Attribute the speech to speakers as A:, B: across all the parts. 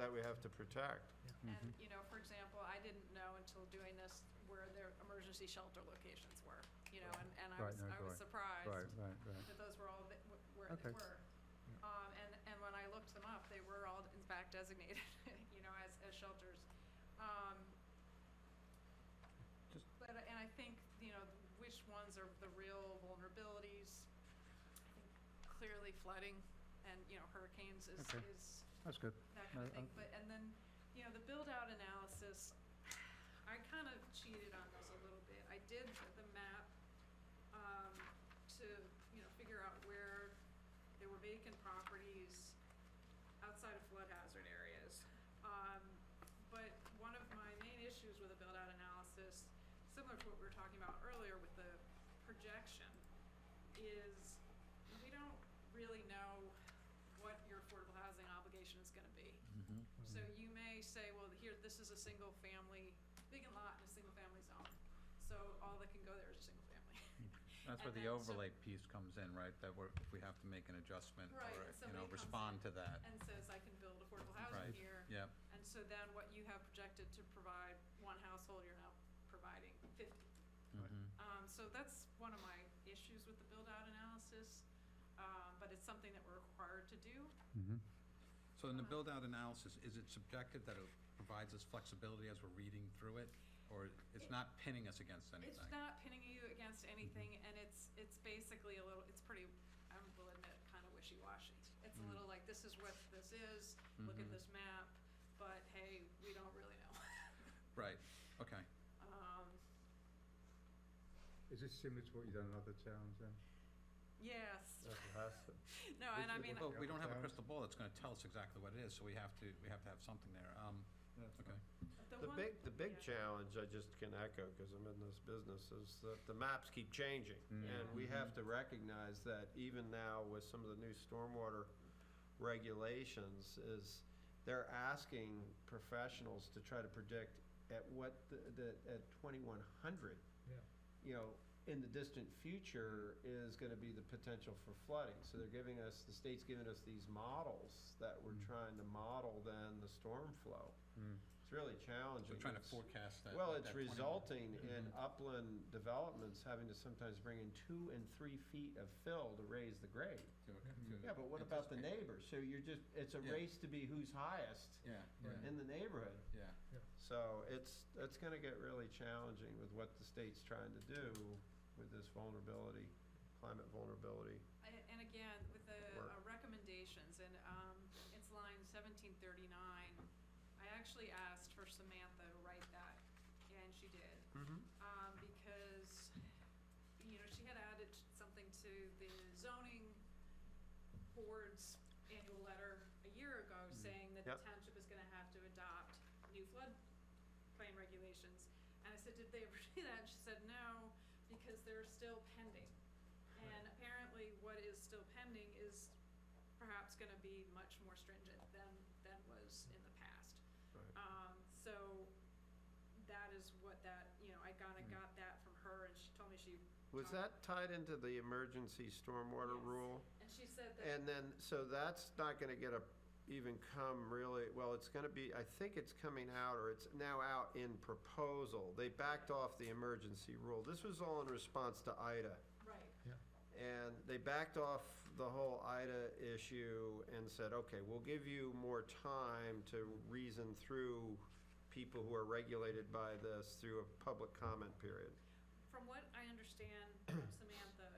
A: that we have to protect.
B: And,
C: Mm-hmm.
B: you know, for example, I didn't know until doing this where their emergency shelter locations were, you know, and, and I
C: Right,
B: was,
C: no,
B: I was
C: right,
B: surprised
C: Right, right, right.
B: that those were all, that w- where they
C: Okay.
B: were. Um, and, and when I looked them up, they were all in fact designated, you know, as, as shelters. Um,
C: Just-
B: but, I- and I think, you know, which ones are the real vulnerabilities? I think Clearly flooding and, you know, hurricanes is,
C: Okay.
B: is
C: That's good.
B: that kind of
C: No,
B: thing.
C: I-
B: But, and then, you know, the build-out analysis, I kind of cheated on this a little bit. I did the- the map, um, to, you know, figure out where there were vacant properties outside of flood hazard areas. Um, but one of my main issues with the build-out analysis, similar to what we were talking about earlier with the projection, is we don't really know what your affordable housing obligation is gonna be.
D: Mm-hmm.
C: Mhm.
B: So you may say, well, here, this is a single family, vacant lot in a single family zone, so all that can go there is a single family.
D: That's where
B: And
D: the
B: then so-
D: overlay piece comes in, right, that we're, if we have to make an adjustment
B: Right,
D: or, you
B: and
D: know,
B: somebody
D: respond
B: comes
D: to that,
B: And says, I can build affordable
D: Right.
B: housing here,
D: yeah.
B: and so then what you have projected to provide one household, you're now providing fifty.
C: Right.
D: mhm.
B: Um, so that's one of my issues with the build-out analysis, um, but it's something that we're required to do.
D: Mm-hmm.
C: Mhm.
D: So in the
B: Uh-huh.
D: build-out analysis, is it subjective that it provides us flexibility as we're reading through it? Or it's
B: It-
D: not pinning us against anything?
B: It's not pinning you against anything,
A: Mm-hmm.
B: and it's, it's basically a little, it's pretty, I will admit, kind of wishy-washy. It's
A: Mm-hmm.
B: a
D: Mm.
B: little like, this is what this is, look at
D: Mhm.
B: this map, but hey, we don't really know.
D: Right, okay.
B: Um,
C: Is this similar to what you've done in other towns then?
B: yes,
A: That has to-
B: no, and I mean,
C: Yeah,
D: Well, we
C: but
D: don't have a
C: that-
D: crystal ball that's gonna tell us exactly what it is, so we have to, we have to have something there, um,
C: That's
D: okay.
B: the
A: The
B: one.
A: big, the big
B: yeah.
A: challenge, I just can echo, because I'm in this business, is that the maps keep changing. And we
B: Mm-hmm.
A: have to recognize that even now with some of the new stormwater regulations is they're asking professionals to try to predict at what the, the, at twenty-one hundred,
C: Yeah.
A: you know, in the distant future is gonna be the potential for flooding. So they're giving us, the state's giving us these models that we're
C: Mm.
A: trying to model then the storm flow.
C: Mm.
A: It's really challenging.
D: So trying to
A: It's-
D: forecast that.
A: Well,
D: that
A: it's
D: 21
A: resulting in
D: Mhm.
A: upland developments having to sometimes bring in two and three feet of fill to raise the grade.
D: to ac- to
A: Yeah, but what about the
D: anticipate.
A: neighbors? So you're just, it's a
D: Yeah.
A: race to be who's highest
C: Mm-hmm.
D: Yeah, yeah,
A: in the neighborhood.
D: yeah.
A: So it's, it's gonna get really challenging with what the state's trying to do with this vulnerability, climate vulnerability.
B: I- And again, with the
A: Work.
B: uh, recommendations, and um, it's line seventeen thirty-nine, I actually asked for Samantha to write that, and she did. um, because, you know, she had added something to the zoning board's annual letter a year ago saying that the
A: Mm-hmm. Yep.
B: township is gonna have to adopt new floodplain regulations. And I said, did they ever do that? And she said, no, because they're still pending. And apparently what is still pending is perhaps gonna be much more stringent than, than was in the past.
A: Right.
B: Um, so that is what that, you know, I kinda
D: Mm.
B: got that from her and she told me she,
A: Was that tied into the emergency stormwater
B: Yes.
A: rule?
B: and she said that,
A: And then, so that's not gonna get a, even come really, well, it's gonna be, I think it's coming out, or it's now out in proposal. They backed off the emergency rule. This was all in response to Ida.
B: right,
A: And they backed off the whole Ida issue and said, okay, we'll give you more time to reason through people who are regulated by this through a public comment period.
B: from what I understand from Samantha,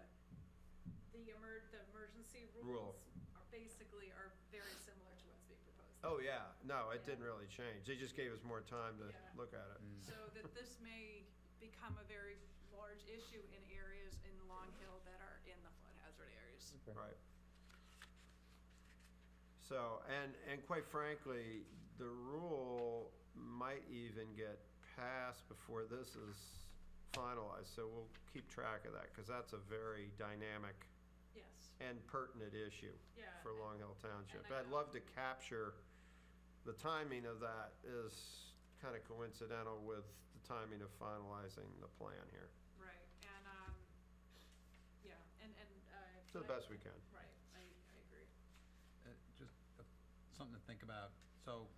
B: the emer- the emergency
A: Rule.
B: rules are basically are very similar to what's being proposed.
A: Oh, yeah, no, it didn't really change. They just gave us more time to
B: Yeah.
A: look at it.
B: So that this may become a very large issue in areas in Long Hill that are in the flood hazard areas.
A: Right. So, and, and quite frankly, the rule might even get passed before this is finalized, so we'll keep track of that, because that's a very dynamic
B: Yes,
A: and pertinent issue
B: yeah.
A: for
B: Uh, and-
A: Long Hill Township.
B: and I
A: I'd
B: know-
A: love to capture, the timing of that is kind of coincidental with the timing of finalizing the plan here,
B: Right, and, um, yeah, and, and, uh.
A: to the
B: I-
A: best we can.
B: Right, I, I agree.
D: Uh, Just uh, something to think about. So